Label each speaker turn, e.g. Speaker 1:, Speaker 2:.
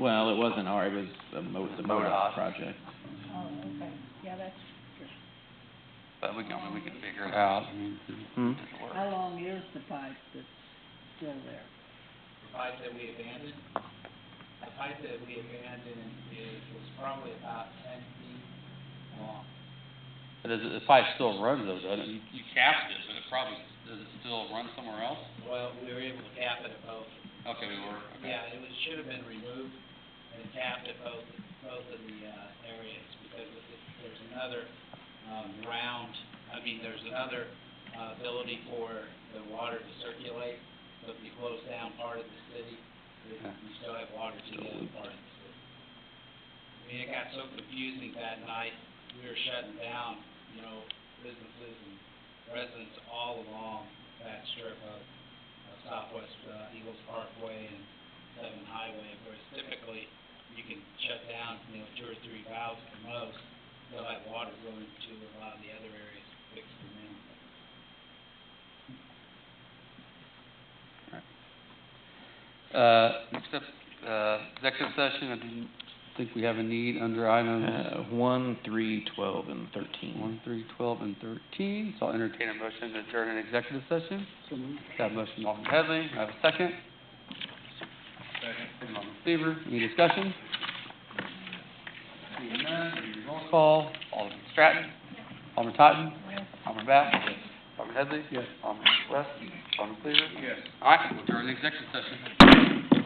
Speaker 1: Well, it wasn't our, it was the Mo, the
Speaker 2: MoDOT.
Speaker 1: MoDOT project.
Speaker 3: Oh, okay, yeah, that's,
Speaker 2: But we can, I mean, we can figure it out, I mean,
Speaker 1: Hmm?
Speaker 2: it'll work.
Speaker 3: how long is the pipe that's still there?
Speaker 4: pipe that we abandoned, the pipe that we abandoned is, was probably about ten feet long.
Speaker 2: But does it, the pipe still runs though, doesn't it? You- You capped it, but it probably, does it still run somewhere else?
Speaker 4: Well, we were able to cap it at both.
Speaker 2: Okay, we were, okay.
Speaker 4: Yeah, it was, should have been removed and capped at both, both of the, uh, areas because of the- there's another, um, round, I mean, there's another, uh, ability for the water to circulate. So if you close down part of the city, you you still have water to the other part of the city. I mean, it got so confusing that night, we were shutting down, you know, businesses and residents all along that strip of uh, Southwest uh, Eagles Parkway and Seven Highway, whereas typically you can shut down, you know, two or three valves at the most, they'll have water going to a lot of the other areas fixed and then.
Speaker 2: Uh, next up, uh, executive session, I didn't think we have a need under items
Speaker 1: Uh, one, three, twelve, and
Speaker 2: one,
Speaker 1: thirteen.
Speaker 2: three, twelve, and thirteen. So I'll entertain a motion to adjourn an executive session.
Speaker 3: So moved.
Speaker 2: Got a motion, Alderman Headley, I have a second. Second. Alderman Seaver, any discussion? Seeing none, roll call, Alderman Stratton. Alderman Totten. Alderman Bass. Alderman Headley.
Speaker 1: Yes.
Speaker 2: Alderman West. Alderman Seaver. All right, we'll adjourn the executive session.